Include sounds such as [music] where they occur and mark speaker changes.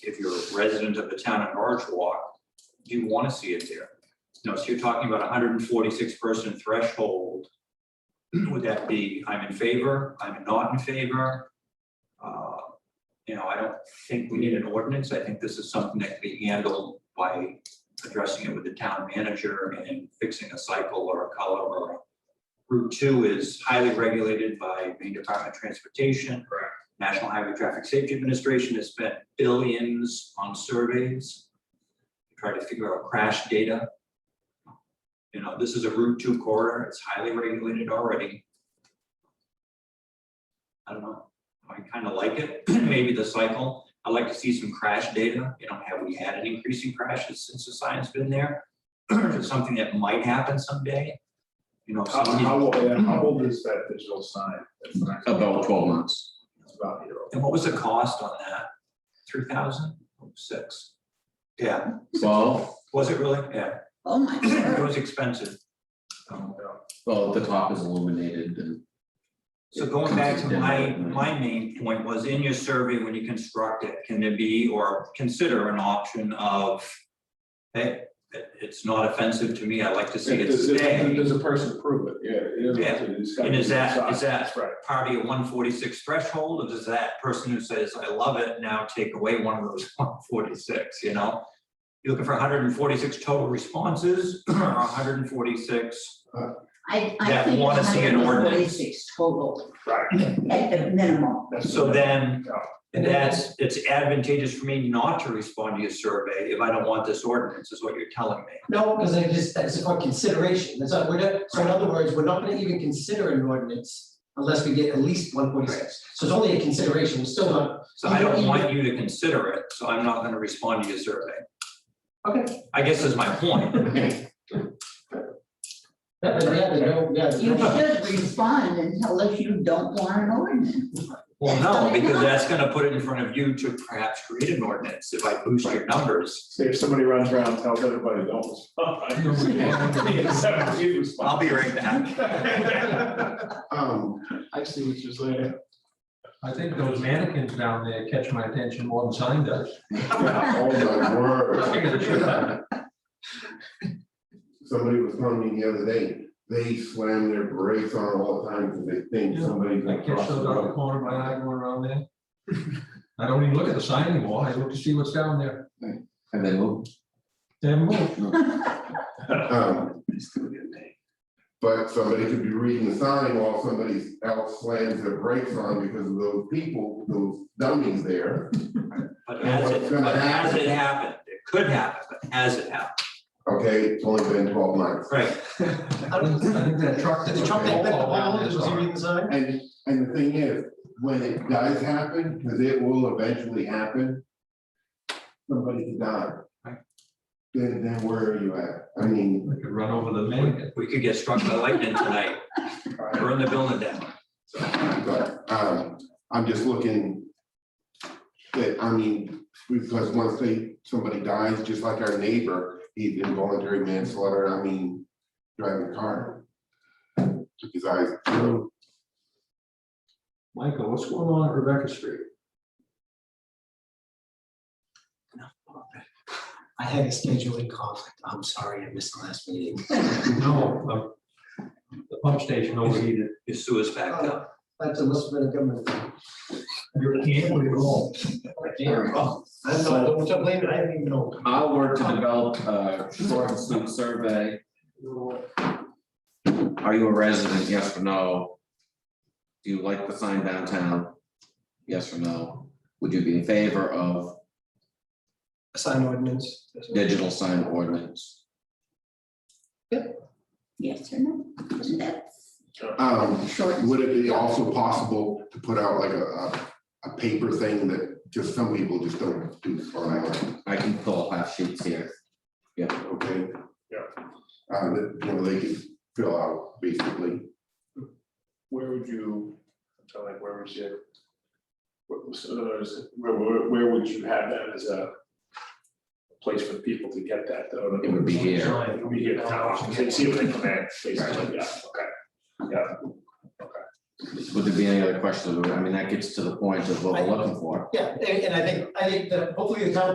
Speaker 1: if you're a resident of the town of Norwich Walk, you want to see it there. No, so you're talking about a hundred and forty-six person threshold. [clears throat] Would that be, I'm in favor, I'm not in favor? Uh, You know, I don't think we need an ordinance. I think this is something that can be handled by addressing it with the town manager and fixing a cycle or a color or a. Route two is highly regulated by Maine Department of Transportation.
Speaker 2: Correct.
Speaker 1: National Highway Traffic Safety Administration has spent billions on surveys. to Try to figure out crash data. You know, this is a Route two corridor. It's highly regulated already. I don't know. I kind of like it. [clears throat] Maybe the cycle. I'd like to see some crash data, you know, have we had an increase in crashes since the sign's been there? [clears throat] Is it something that might happen someday? You know,
Speaker 2: How,
Speaker 1: somebody-
Speaker 2: how old, how old is that digital sign? That's not-
Speaker 3: About twelve months.
Speaker 2: It's about a year old.
Speaker 1: and what was the cost on that? Three thousand, six? Yeah,
Speaker 3: Well,
Speaker 1: was it really? Yeah,
Speaker 4: Oh my
Speaker 1: [clears throat] it
Speaker 4: word.
Speaker 1: was expensive. Um,
Speaker 3: well, the top is illuminated and.
Speaker 1: So going back to my, my main point was in your survey, when you construct it, can there be or consider an option of, hey, it- it's not offensive to me, I like to see it
Speaker 2: Does,
Speaker 1: stay.
Speaker 2: it- does a person prove it? Yeah. it is- it's gotta
Speaker 1: And is
Speaker 2: be
Speaker 1: that-
Speaker 2: inside.
Speaker 1: is that-
Speaker 2: That's Right.
Speaker 1: party of one forty-six threshold, or does that person who says, I love it, now take away one of those [laughs] one forty-six, you know? You're looking for hundred and forty-six total responses, [clears throat] or hundred and forty-six,
Speaker 4: I, I
Speaker 1: That
Speaker 4: think
Speaker 1: wanna see an ordinance.
Speaker 4: 146 total
Speaker 2: Right.
Speaker 4: at the minimum.
Speaker 2: That's-
Speaker 1: so then
Speaker 2: Yeah.
Speaker 1: that's, it's advantageous for me not to respond to your survey if I don't want this ordinance, is what you're telling me.
Speaker 5: No, because I just, that's a consideration, that's not, we're not, so in other words, we're not gonna even consider an ordinance unless we get at least one forty six. So it's only a consideration, we're still not,
Speaker 1: So I don't want you to consider it, so I'm not gonna respond to your survey,
Speaker 5: okay,
Speaker 1: I guess is my point.
Speaker 2: [laughs]
Speaker 5: yeah, but yeah, but no, yeah.
Speaker 4: You
Speaker 5: no.
Speaker 4: should respond and tell us you don't want an ordinance.
Speaker 1: Well, no, because that's gonna put it in front of you to perhaps create an ordinance if I boost your numbers.
Speaker 2: Say if somebody runs around and tells everybody, don't. [laughs] respond.
Speaker 1: I'll be right back.
Speaker 2: Um, I see what you're saying.
Speaker 6: I think those mannequins down there catch my attention more than sign does.
Speaker 7: Oh my
Speaker 6: Sure.
Speaker 7: word. Somebody was telling me the other day, they slam their brakes on all the time because they think
Speaker 6: Yeah,
Speaker 7: somebody's
Speaker 6: I
Speaker 7: gonna
Speaker 6: catch
Speaker 7: cross the
Speaker 6: those out of the
Speaker 7: road.
Speaker 6: corner of my eye going around there. I don't even look at the sign anymore. I look to see what's down there.
Speaker 3: And they move.
Speaker 6: Damn, move.
Speaker 7: Um, But somebody could be reading the sign while somebody else slams their brakes on because of those people, those dummies there.
Speaker 1: But as it,
Speaker 7: What's gonna
Speaker 1: but as it
Speaker 7: happen?
Speaker 1: happened, it could happen, but as it happened,
Speaker 7: Okay, it's only been twelve months.
Speaker 1: right?
Speaker 5: I
Speaker 6: I
Speaker 5: don't-
Speaker 6: think I think that truck
Speaker 5: Did
Speaker 6: that's.
Speaker 5: the truck that bent the
Speaker 6: all around
Speaker 5: pole,
Speaker 6: this
Speaker 5: was he
Speaker 6: are-
Speaker 5: reading the sign?
Speaker 7: And, and the thing is, when it does happen, because it will eventually happen, somebody could die.
Speaker 1: Right.
Speaker 7: Then, then where are you at? I mean,
Speaker 6: I could run over the mannequin.
Speaker 1: We could get struck by lightning tonight, burn the building down.
Speaker 7: but, um, I'm just looking that, I mean, because once they, somebody dies, just like our neighbor, he's involuntary manslaughter, I mean, driving a car. Took his eyes, through.
Speaker 6: Michael, what's going on at Rebecca Street?
Speaker 5: I had a scheduling conflict, I'm sorry, I missed the last meeting.
Speaker 6: No, um, the pump station overheated.
Speaker 1: Your sewer's backed up.
Speaker 5: That's a must have been a government. thing.
Speaker 6: You're a gambling roll.
Speaker 5: Oh, I don't know, don't- don't blame it, I didn't even know.
Speaker 3: I'll work to develop a short and sweet survey. Are you a resident? Yes or no? Do you like the sign downtown? Yes or no? Would you be in favor of
Speaker 5: Sign ordinance.
Speaker 3: digital sign ordinance?
Speaker 4: Yes or no? And That's
Speaker 7: um,
Speaker 4: short. and
Speaker 7: Would it be also possible to put out like a, a, a paper thing that just some people just don't do online,
Speaker 3: I can pull half sheets here.
Speaker 7: okay?
Speaker 2: Yeah.
Speaker 7: Uh, that, you know, they could fill out basically,
Speaker 2: [laughs] Where would you, so like, where would you? what- so in other words, where, where, where would you have that as a place for people to get that though?
Speaker 3: It would be here.
Speaker 2: It would be here, town office, they see what they come in, basically, yeah, okay.
Speaker 3: Would there be any other questions? I mean, that gets to the point of what we're looking for.
Speaker 5: Yeah, and, and I think, I think that hopefully the town